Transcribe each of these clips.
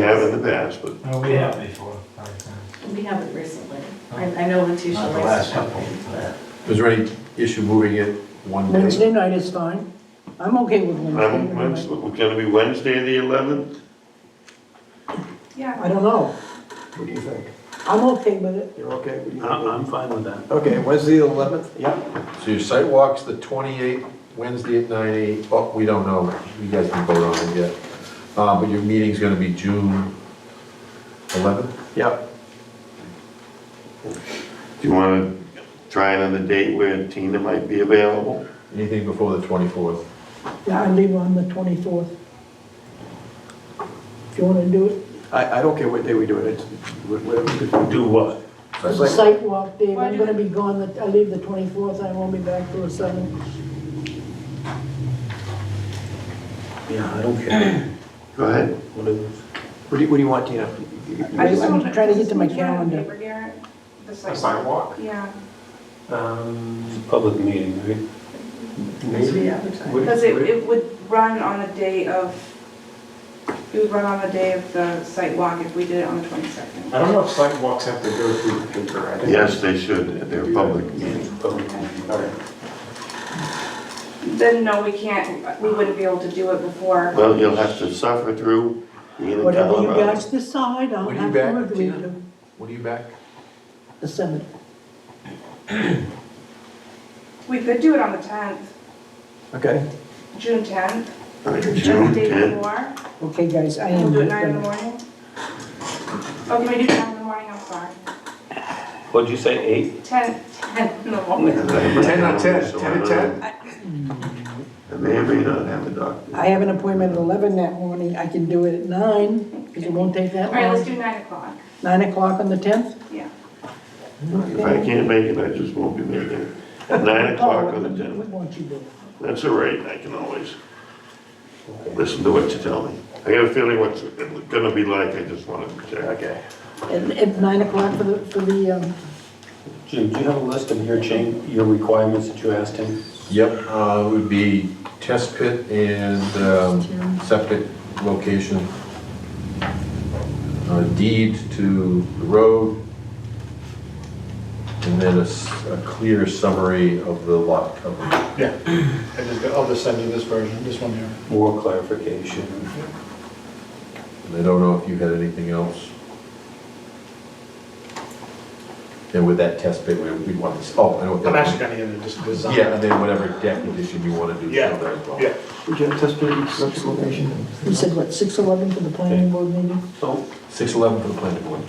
We have in the past, but No, Oh, we have before. We haven't recently. I, I know Letitia Oh. Not the likes last to couple, but Is there any issue moving it one day? Wednesday night is fine. I'm okay with I'm, Wednesday I'm, night. it's gonna be Wednesday, the eleventh? I don't know. What do you think? I'm okay with it. You're okay? What do you I'm, think? I'm fine with that. Okay, Wednesday the eleventh? Yep. So your site walk's the 28th, Wednesday at 9, 8, oh, we don't know, you guys can vote on it yet. Uh, but your meeting's gonna be June 11th? Yep. Do you wanna try another date where Tina might be available? Anything before the 24th? Yeah, I leave on the 24th. If you want to do it, I, I don't care what day we do it, it's, wh- whatever. we do. Do what? That's the like- site walk, Dave, Why I'm do- going to be gone, the- I leave the 24th, I won't be back till the 7th. Yeah, I don't care. Go ahead. Whatever. What do you, what do you want, Tina? I just I'm wanna- trying to get to my Did you have a calendar. paper, Garrett? The A site- sidewalk? Yeah, Um, public meeting, right? it's re-advertised. Would- because it, would- it would run on the day of, it would run on the day of the site walk if we did it on the twenty-second. I don't know if sidewalks have to go through the paper. I think- Yes, they should, they're a public meeting. Public meeting, all right. Then no, we can't, we wouldn't be able to do it before. Well, you'll have to suffer through being in Whatever you Colorado. guys decide, I'll When are you have to back, agree Tina? to When are you back? the 7th. We could do it on the tenth, Okay, June tenth, Like the June day 10th. before. Okay, guys, I We'll am. do it nine in the gonna- morning. Oh, can we do ten in the morning? I'm sorry. What'd you say, eight? Ten, ten in the morning. 10 on 10, 10 on 10. I may or may not have a doctor. I have an appointment at 11 that morning, I can do it at 9, because it won't take that All right, let's long. do nine o'clock, 9 o'clock on the 10th? yeah. If I can't make it, I just won't be there. Nine o'clock on the We tenth. want you there. That's all right, I can always listen to what you tell me. I got a feeling what's it gonna be like, I just wanna check. okay. At, at 9 o'clock for the, for the, um, Jim, do you have a list of your change, your requirements that you asked him? Yep, uh, it would be test pit and, um, septic location. A deed to the road. And then a, s- a clear summary of the lot coverage. Yeah, I just, I'll just send you this version, this one here. More clarification. And I don't know if you had anything else. And with that test pit, we, we want this, oh, I know what I'm actually that. gonna get it just designed. Yeah, and then whatever deck addition you wanna do. show Yeah, that as well. yeah. Would you have test pit electric location? you said what, 6:11 for the planning board meeting? So, Six eleven for the planning board.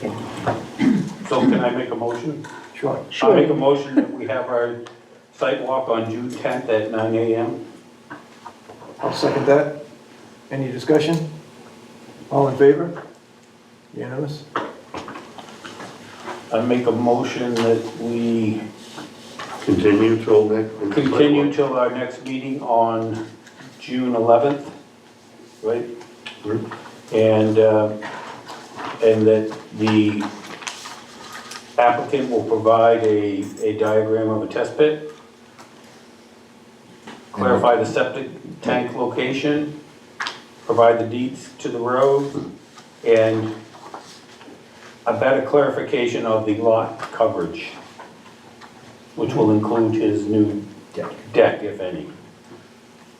so can I make a motion? Sure. I make a motion that we have our site walk on June tenth at nine AM. I'll second that. Any discussion? All in favor? Unanimous? I make a motion that we Continue till next. continue till our next meeting on June eleventh, right? Hmm? And, uh, and that the applicant will provide a, a diagram of a test pit, clarify the septic tank location, provide the deeds to the road, and a better clarification of the lot coverage, which will include his new Deck. deck, if any.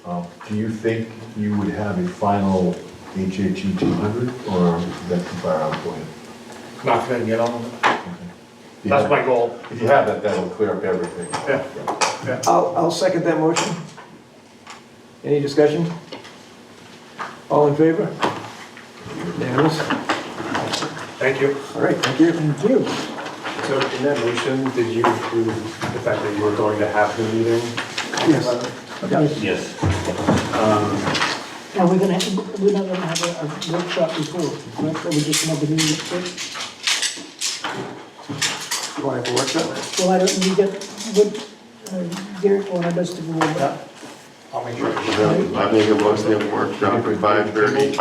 Um, Do you think you would have a final HHE 200, or is that too far out for you? Not gonna get on with it. If you That's have- my goal. If you have that, that'll clear up everything. Yeah. I'll, I'll second that motion. Any discussion? All in favor? Unanimous? Thank you. All right, thank you. Thank you. So in that motion, did you include the fact that you were going to have the meeting? Yes. Yes. Now, we're gonna, have- we're not gonna have a a workshop before, correct? Or we just gonna have the meeting at six? You want to have a workshop? Well, I don't, you get, what, uh, Garrett wanted us to go over that. I'll make sure. I make a motion to have a workshop at five thirty.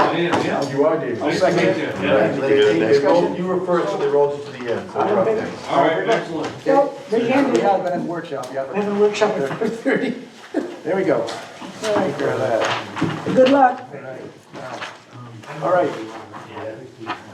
You are, David. I'll second it. You were first, so they rolled you to the end, so I we're don't up think- next. All right, excellent. Yeah, raise your hand if you have been at the workshop, I have yeah. a workshop at four thirty. There we go. Take care of that. Good luck. All right.